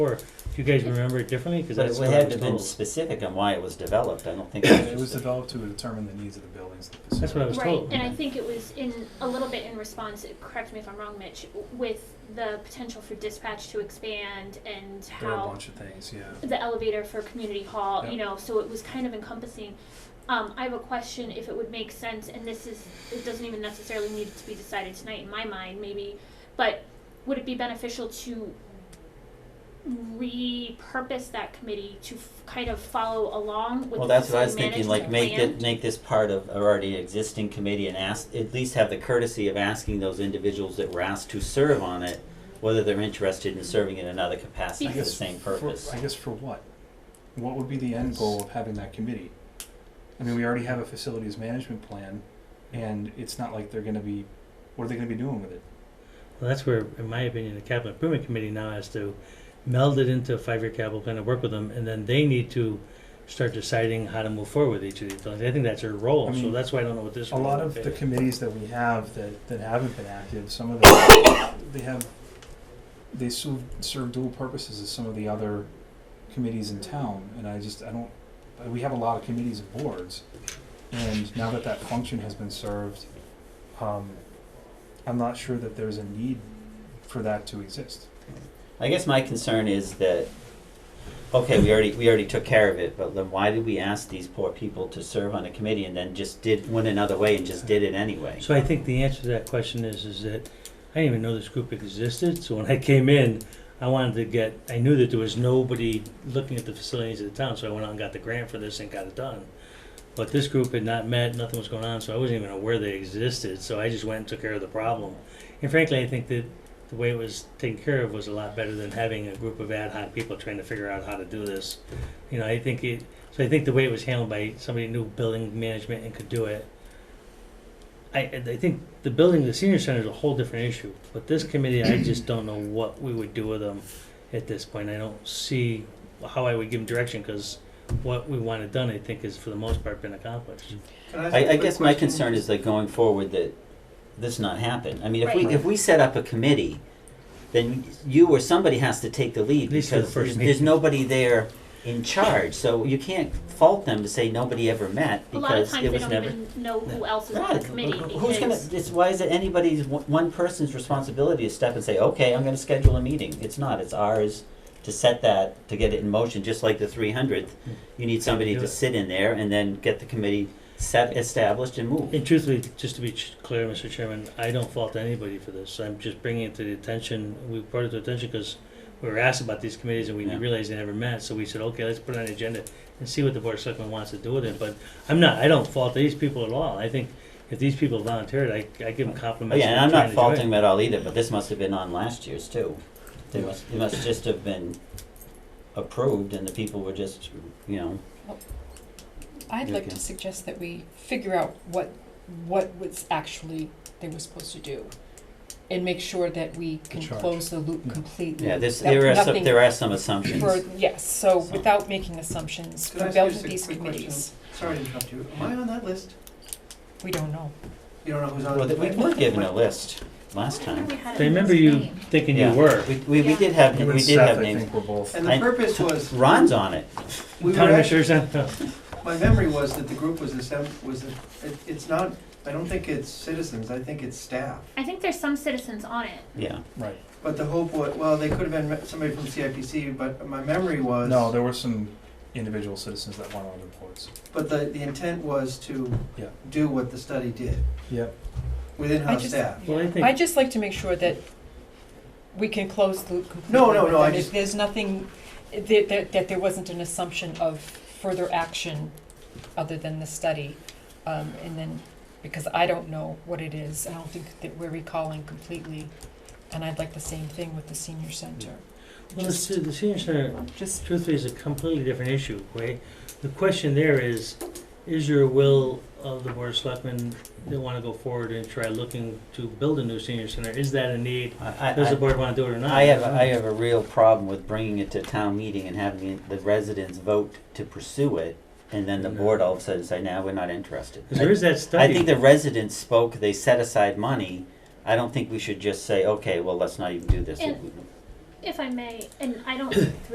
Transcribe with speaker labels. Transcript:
Speaker 1: Or if you guys remember it differently, because
Speaker 2: But
Speaker 1: that's
Speaker 2: it
Speaker 1: what I
Speaker 2: had
Speaker 1: was
Speaker 2: to been
Speaker 1: told.
Speaker 2: specific on why it was developed, I don't think.
Speaker 3: It was
Speaker 2: just a-
Speaker 3: developed to determine the needs of the buildings. and the
Speaker 1: That's what I was
Speaker 4: Right,
Speaker 1: told.
Speaker 4: and I think it was in, a little bit in response, correct me if I'm wrong, Mitch, with the potential for dispatch to expand and
Speaker 3: There were a
Speaker 4: how
Speaker 3: bunch of things, yeah.
Speaker 4: the elevator for community hall, you
Speaker 3: Yeah.
Speaker 4: know, so it was kind of encompassing. Um, I have a question if it would make sense, and this is, it doesn't even necessarily need to be decided tonight in my mind, maybe, but would it be beneficial to repurpose that committee to f- kind of follow along with
Speaker 2: Well,
Speaker 4: the
Speaker 2: that's what I was
Speaker 4: facility
Speaker 2: thinking, like,
Speaker 4: management
Speaker 2: make
Speaker 4: plan?
Speaker 2: it, make this part of our already existing committee and ask, at least have the courtesy of asking those individuals that were asked to serve on it, whether they're interested in serving in another capacity
Speaker 3: I
Speaker 2: for the
Speaker 3: guess
Speaker 2: same
Speaker 3: for-
Speaker 2: purpose.
Speaker 3: I guess for what? What would be the end goal of having that committee? I mean, we already have a facilities management plan, and it's not like they're gonna be, what are they gonna be doing with it?
Speaker 1: Well, that's where, in my opinion, the capital improvement committee now has to meld it into a five-year capital plan and work with them, and then they need to start deciding how to move forward with each of these buildings. I think that's their role,
Speaker 3: I
Speaker 1: so
Speaker 3: mean,
Speaker 1: that's why I don't know what this
Speaker 3: A
Speaker 1: role
Speaker 3: lot of
Speaker 1: is.
Speaker 3: the committees that we have that, that haven't been active, some of them, they have, they serve, serve dual purposes as some of the other committees in town, and I just, I don't, we have a lot of committees and boards, and now that that function has been served, um, I'm not sure that there's a need for that to exist.
Speaker 2: I guess my concern is that, okay, we already, we already took care of it, but then why did we ask these poor people to serve on a committee and then just did, went another way and just did it anyway?
Speaker 1: So I think the answer to that question is, is that I didn't even know this group existed, so when I came in, I wanted to get, I knew that there was nobody looking at the facilities of the town, so I went out and got the grant for this and got it done. But this group had not met, nothing was going on, so I wasn't even aware they existed, so I just went and took care of the problem. And frankly, I think that the way it was taken care of was a lot better than having a group of ad hoc people trying to figure out how to do this. You know, I think it, so I think the way it was handled by somebody who knew building management and could do it I, I think the building, the senior center is a whole different issue, but this committee, I just don't know what we would do with them at this point. I don't see how I would give them direction, because what we wanted done, I think, is for the most part been accomplished.
Speaker 2: I, I guess my concern is that going forward that this not happen. I mean, if we,
Speaker 4: Right.
Speaker 2: if we set up a committee, then you or somebody has to take the lead
Speaker 1: At least for the
Speaker 2: because
Speaker 1: first
Speaker 2: there's,
Speaker 1: meeting.
Speaker 2: there's nobody there in charge. So you can't fault them to say nobody ever met
Speaker 4: A lot of
Speaker 2: because
Speaker 4: times
Speaker 2: it
Speaker 4: they
Speaker 2: was
Speaker 4: don't
Speaker 2: never.
Speaker 4: even know who else is on
Speaker 2: Yeah,
Speaker 4: the committee
Speaker 2: who- who's gonna,
Speaker 4: because
Speaker 2: it's, why is it anybody's, one- one person's responsibility to step and say, okay, I'm gonna schedule a meeting? It's not, it's ours to set that, to get it in motion, just like the three hundredth. You need somebody
Speaker 1: do
Speaker 2: to
Speaker 1: it.
Speaker 2: sit in there and then get the committee set, established and moved.
Speaker 1: And truthfully, just to be ch- clear, Mr. Chairman, I don't fault anybody for this. I'm just bringing it to the attention, we brought it to attention because we were asked about these committees and we
Speaker 2: Yeah.
Speaker 1: realized they never met, so we said, okay, let's put it on the agenda and see what the board of selectmen wants to do with it. But I'm not, I don't fault these people at all. I think if these people volunteered, I, I give them
Speaker 2: Oh,
Speaker 1: compliments.
Speaker 2: yeah, and
Speaker 1: for
Speaker 2: I'm
Speaker 1: trying
Speaker 2: not
Speaker 1: to do it.
Speaker 2: faulting them at all either, but this must have been on last year's too. They must, it must just have been approved and the people were just, you know,
Speaker 5: I'd
Speaker 2: Yeah,
Speaker 5: like
Speaker 2: okay.
Speaker 5: to suggest that we figure out what, what was actually they were supposed to do. And make sure that we can
Speaker 3: charge.
Speaker 5: close the loop
Speaker 2: Mm-hmm.
Speaker 3: Yeah.
Speaker 5: completely.
Speaker 2: yeah, this,
Speaker 5: that
Speaker 2: there are some,
Speaker 5: nothing
Speaker 2: there are some assumptions.
Speaker 5: for- Yes, so
Speaker 2: So-
Speaker 5: without making assumptions,
Speaker 6: Could I
Speaker 5: we
Speaker 6: ask
Speaker 5: built
Speaker 6: you just a
Speaker 5: these
Speaker 6: quick question?
Speaker 5: committees,
Speaker 6: Sorry to interrupt you. Am I on that list?
Speaker 5: we don't know.
Speaker 6: You don't know who's on
Speaker 2: Well,
Speaker 6: it?
Speaker 2: th- we were given a list last time.
Speaker 4: we had
Speaker 1: They
Speaker 4: it in
Speaker 1: remember
Speaker 4: his
Speaker 1: you
Speaker 4: name.
Speaker 1: thinking you
Speaker 2: Yeah.
Speaker 1: were.
Speaker 2: We, we, we did have,
Speaker 3: You and
Speaker 2: we did have
Speaker 3: Seth, I
Speaker 2: names.
Speaker 3: think, were both.
Speaker 6: And the
Speaker 2: I-
Speaker 6: purpose was,
Speaker 2: Ron's on it.
Speaker 6: we were
Speaker 1: Town
Speaker 6: actually,
Speaker 1: administrator's on-
Speaker 6: my memory was that the group was the seven, was, the- it, it's not, I don't think it's citizens, I think it's staff.
Speaker 4: I think there's some citizens on it.
Speaker 2: Yeah.
Speaker 3: Right.
Speaker 6: But the hope was, well, they could have been re- somebody from CIPC, but my memory was.
Speaker 3: No, there were some individual citizens that weren't on the boards.
Speaker 6: But the, the intent was to
Speaker 3: Yeah.
Speaker 6: do what the study did
Speaker 3: Yep.
Speaker 6: with in-house
Speaker 5: just-
Speaker 6: staff.
Speaker 1: Well, I think-
Speaker 5: I'd just like to make sure that we can close the loop completely.
Speaker 6: No, no, no, I
Speaker 5: and if
Speaker 6: just-
Speaker 5: There's nothing, that, that, that there wasn't an assumption of further action other than the study. Um, and then, because I don't know what it is, I don't think that we're recalling completely. And I'd like the same thing with the senior center.
Speaker 1: Well, the se- the senior center
Speaker 5: Just,
Speaker 1: truthfully is a completely different issue, right? The question there is, is your will of the board of selectmen that want to go forward and try looking to build a new senior center, is that a need?
Speaker 2: I,
Speaker 1: Does the
Speaker 2: I,
Speaker 1: board want to do it or not?
Speaker 2: I have, I have a real problem with bringing it to town meeting and having the residents vote to pursue it, and then the board all of a sudden say, now we're not interested.
Speaker 1: Because there is that
Speaker 2: I
Speaker 1: study.
Speaker 2: think the residents spoke, they set aside money. I don't think we should just say, okay, well, let's not even do this.
Speaker 4: And- if I may, and I don't